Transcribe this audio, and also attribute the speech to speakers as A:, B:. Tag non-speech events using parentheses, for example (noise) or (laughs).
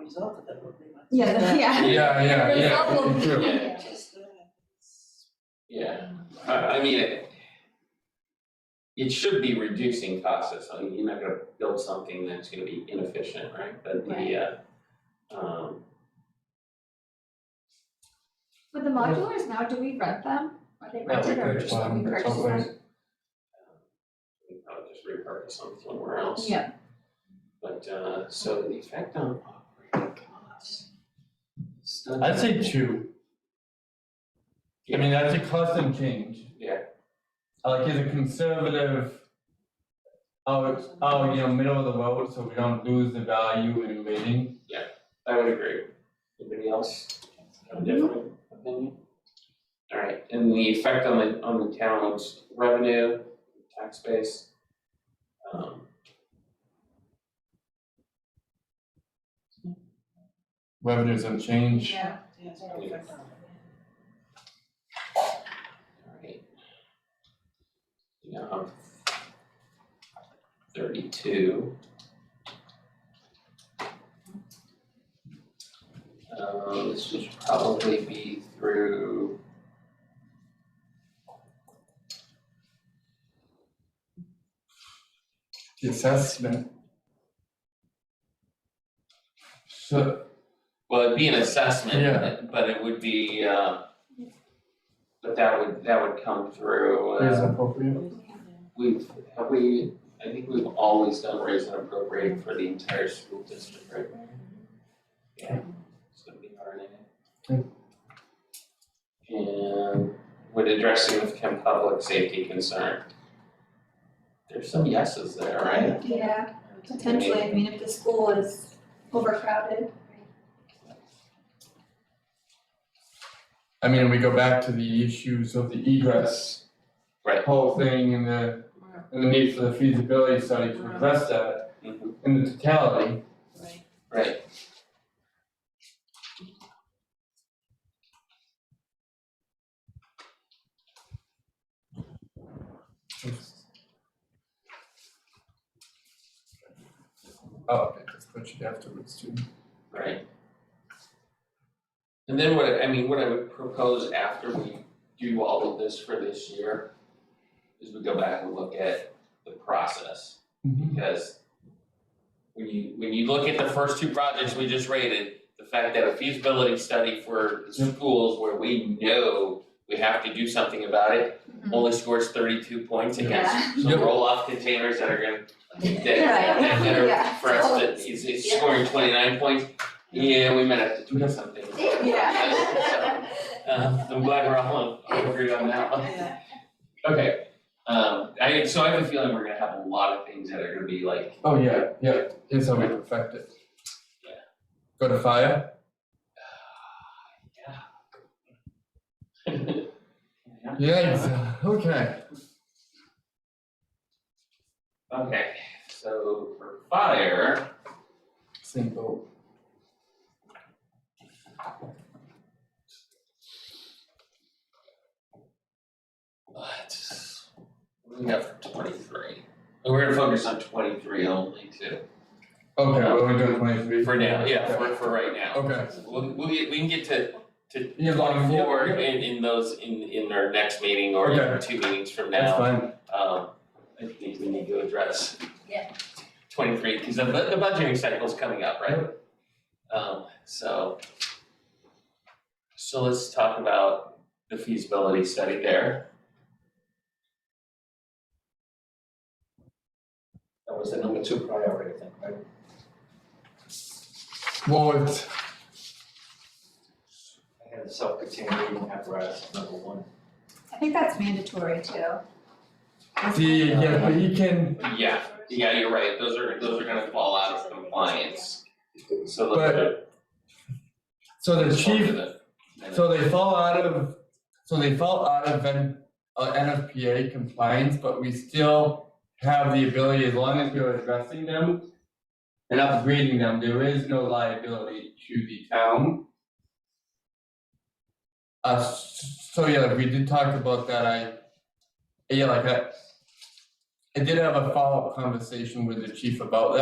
A: result of that would be much.
B: Yeah, yeah.
C: Yeah, yeah, yeah,
B: Problem.
C: true.
D: Yeah,
A: Just, uh,
D: yeah, I I mean, it. It should be reducing costs, I mean, you're not gonna build something that's gonna be inefficient, right, but the uh. Um,
B: (laughs) But the modulars now, do we rent them? Are they
C: Now we
B: rented or
C: purchase
B: just we
C: them at
B: purchase
C: some place.
B: them?
D: Um, we can probably just repurpose them somewhere else,
B: Yeah,
D: but uh, so the effect on operating costs. it's not
C: I'd say
D: that-
C: two. I mean, that's a custom change.
D: Yeah.
C: Like, is a conservative, oh, oh, you know, middle of the road, so we don't lose the value in waiting.
D: I would agree. Anybody else have a different opinion? All right, and the effect on the, on the town's revenue, tax base. Um,
C: Revenues unchanged.
B: yeah.
A: yeah, it's all
D: Yeah.
A: different.
D: all right. Yeah, um, thirty-two. Uh, this would probably be through.
C: The assessment. So,
D: Well, it'd be an assessment,
C: Yeah.
D: but- but it would be, uh, but that would, that would come through, uh,
C: is appropriate?
D: we've, have we, I think we've always done raise and appropriate for the entire school district, right? Yeah, it's gonna be hard,
C: Okay.
D: And would address significant public safety concern. There's some yeses there, right?
B: Yeah, potentially, I mean, if the school is overcrowded.
C: I mean, we go back to the issues of the egress.
D: Right.
C: Whole thing and the, and the need for the feasibility study to address that
D: Mhm.
C: in the totality.
A: Right.
D: Right.
C: Oh, okay, that's what you afterwards too.
D: Right. And then what, I mean, what I would propose after we do all of this for this year is we go back and look at the process. Mm-hmm. because when you, when you look at the first two projects we just rated, the fact that a feasibility study for schools where we know we have to do something about it,
B: Mhm.
D: only scores thirty-two points against
B: Yeah.
D: some
C: Yep.
D: roll-off containers that are gonna, that,
B: Yeah,
D: that that
B: (laughs)
D: are
B: yeah.
D: for us, that is, is scoring twenty-nine points. Yeah, we might have to tweak something.
B: Yeah.
D: (laughs) So, uh, I'm glad we're all on, all agreed on that one.
A: Yeah.
D: Okay, um, I, so I have a feeling we're gonna have a lot of things that are gonna be like (sighs)
C: Oh, yeah, yeah, here's how we perfect it.
D: Yeah.
C: Go to fire,
D: Yeah. (laughs)
C: yeah, (laughs) okay,
D: Okay, so for fire,
C: same boat.
D: let's, what do we got for twenty-three? And We're gonna focus on twenty-three only too.
C: Okay, we're only doing twenty-three.
D: For now, yeah, for, for right now.
C: Okay,
D: We'll, we'll get, we can get to, to
C: Yeah, long- yeah,
D: twenty-four in,
C: yeah.
D: in those, in, in our next meeting or in
C: Okay.
D: two meetings from now.
C: that's fine,
D: Um, I think we need to address.
B: Yeah.
D: Twenty-three, because the, bu- the budgeting cycle's coming up, right? Um, so. So let's talk about the feasibility study there. That was the number two priority, I think, right?
C: well, it's,
E: I had the self-contained breathing apparatus, number one.
B: I think that's mandatory too.
C: the, yeah, but you can,
D: Yeah, yeah, you're right, those are, those are gonna fall out of compliance, so
C: But-
D: let's.
C: so the
D: let's talk to
C: chief,
D: the-
C: so they fall out of, so they fall out of N, uh, NFPA compliance, but we still have the ability, as long as we're addressing them and upgrading them, there is no liability to the town. Uh, s- so yeah, we did talk about that, I, yeah, like I, I did have a follow-up conversation with the chief about that.